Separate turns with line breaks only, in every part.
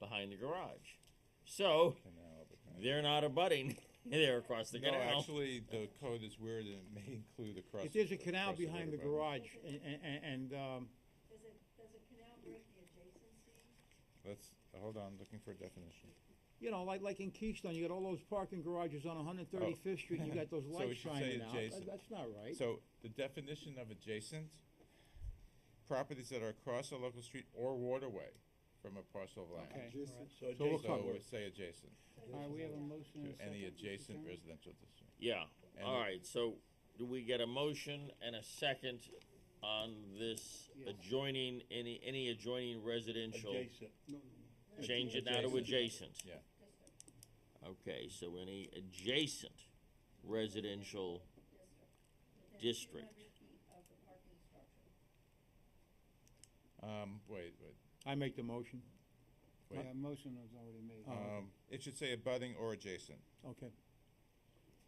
behind the garage. So
canal, but not-
they're not abutting. they're across the
No,
canal.
actually, the code is weird and it may include across.
If there's a
across
canal
the
behind the
road abutment.
garage and, and, um,
Does a, does a canal break the adjacency?
Let's, hold on, looking for a definition.
you know, like, like in Keystone, you got all those parking garages on one hundred thirty-fifth Street, and you got those
Oh. So we
lights
should say
shining out. That-
adjacent.
That's not right.
So the definition of adjacent, properties that are across a local street or waterway from a parcel of land.
Okay, all right.
So
So
we'll
adjacent,
cover
we
it.
say adjacent
All right, we have a motion and a
to any
second, Mr.
adjacent
Chairman?
residential district.
Yeah,
And
all
it-
right, so do we get a motion and a second on this
Yes.
adjoining, any, any adjoining residential?
adjacent.
Change it now to adjacent?
Yeah.
Okay, so any adjacent residential district,
Um, wait, wait.
I make the motion.
Wait.
Yeah, motion was already made,
Oh. okay.
Um, it should say abutting or adjacent.
Okay,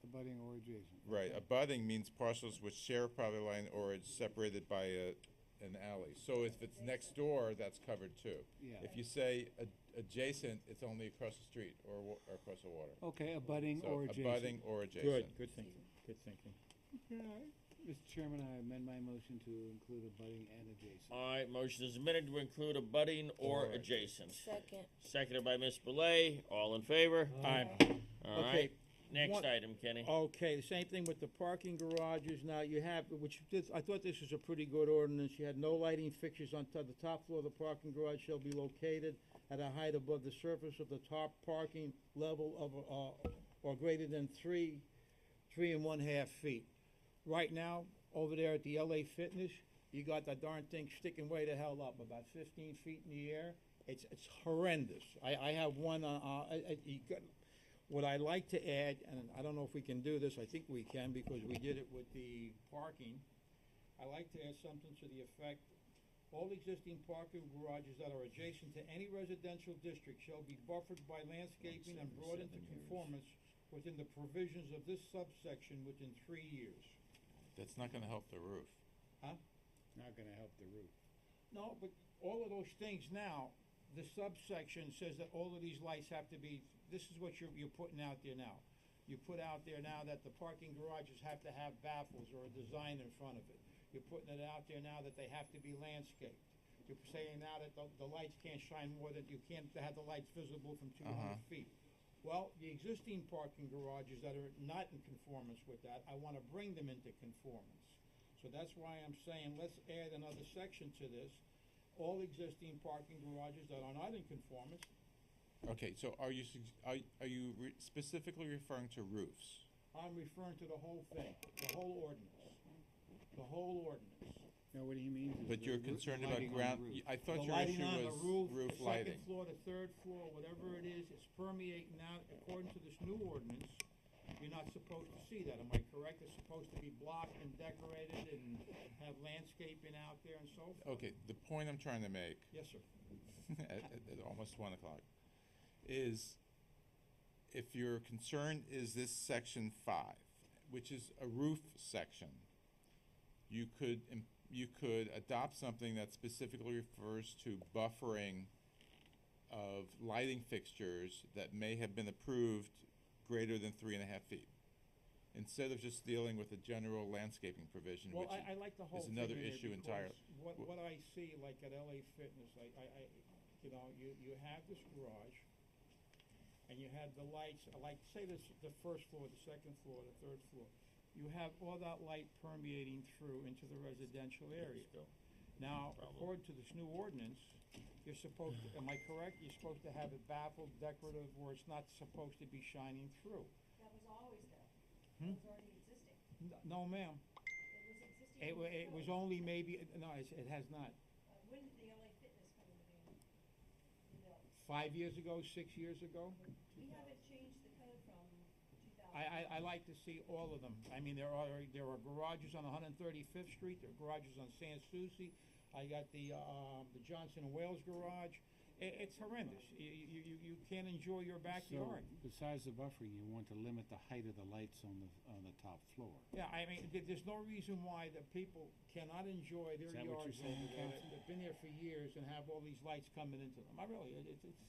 abutting or adjacent.
Right, abutting means parcels which share a property line or is separated by a, an alley. So if it's next door, that's covered too.
Yeah.
If you say ad- adjacent, it's only across the street or wa- or across the water.
Okay, abutting
So
or adjacent.
abutting or adjacent.
good, good thinking, good thinking.
Mr. Chairman, I amend my motion to include abutting and adjacent.
all right, motion is amended to include abutting or
Or-
adjacent.
Second.
Seconded by Ms. Belay, all in favor?
Aye.
All
Okay,
right, next
one- Oh,
item, Kenny.
Okay, the same thing with the parking garages, now you have, which, this- I thought this was a pretty good ordinance, you had no lighting fixtures on to- the top floor of the parking garage shall be located at a height above the surface of the top parking level of, uh, or greater than three, three and one half feet. Right now, over there at the LA Fitness, you got that darn thing sticking way the hell up, about fifteen feet in the air, it's, it's horrendous. I, I have one, uh, uh, I- I- you got, what I like to add, and I don't know if we can do this, I think we can because we did it with the parking. I like to add something to the effect, all existing parking garages that are adjacent to any residential district shall be buffered by landscaping and brought into conformance within the provisions of this subsection within three years.
That's not gonna help the roof.
Not gonna help the roof.
No, but all of those things now, the subsection says that all of these lights have to be, this is what you're, you're putting out there now. You put out there now that the parking garages have to have baffles or a design in front of it. You're putting it out there now that they have to be landscaped. You're saying now that the, the lights can't shine more than, you can't have the lights visible from two
Uh-huh.
hundred feet. Well, the existing parking garages that are not in conformance with that, I wanna bring them into conformance. So that's why I'm saying, let's add another section to this. All existing parking garages that are not in conformance,
Okay, so are you, sug- are, are you re- specifically referring to roofs?
I'm referring to the whole thing, the whole ordinance, the whole ordinance.
Now, what he means is.
But
the
you're
roo-
concerned about
lighting on the
ground,
roof.
y- I thought
The
your
lighting
issue
on the
was
roof,
roof
the second
lighting.
floor, the third floor, whatever it is, it's permeating now, according to this new ordinance, you're not supposed to see that, am I correct? It's supposed to be blocked and decorated and have landscaping out there and so forth.
Okay, the point I'm trying to make
Yes, sir.
at, at- at almost one o'clock, is if your concern is this section five, which is a roof section, you could, im- you could adopt something that specifically refers to buffering of lighting fixtures that may have been approved greater than three and a half feet. Instead of just dealing with the general landscaping provision, which
Well, I, I like the
is
whole thing
another
in there
issue
because
entire-
What,
wh-
what I see, like at LA Fitness, I, I, I, you know, you, you have this garage, and you have the lights, uh, like, say this, the first floor, the second floor, the third floor. You have all that light permeating through into the residential area. Now,
Problem.
according to this new ordinance, you're supposed, to- am I correct? You're supposed to have it baffled, decorative, where it's not supposed to be shining through.
That was always there.
Hmm?
It was already existing.
N- No, ma'am.
It was existing.
It, wa-
when
it was
built.
only maybe, no, it's- it has not.
Uh, When did the LA Fitness come into being? No.
five years ago, six years ago.
We haven't changed the code from two
I,
thousand.
I, I like to see all of them. I mean, there are, there are garages on 135th Street, there are garages on San Souci. I got the, um, the Johnson and Wales garage. It, it's horrendous. You, you, you- you can't enjoy your backyard.
So, Besides the buffering, you want to limit the height of the lights on the, on the top floor.
Yeah, I mean, there, there's no reason why the people cannot enjoy their
that what you're
yards
saying,
over there. They've been there for years and have all these lights coming into them. I really, it, it's, it's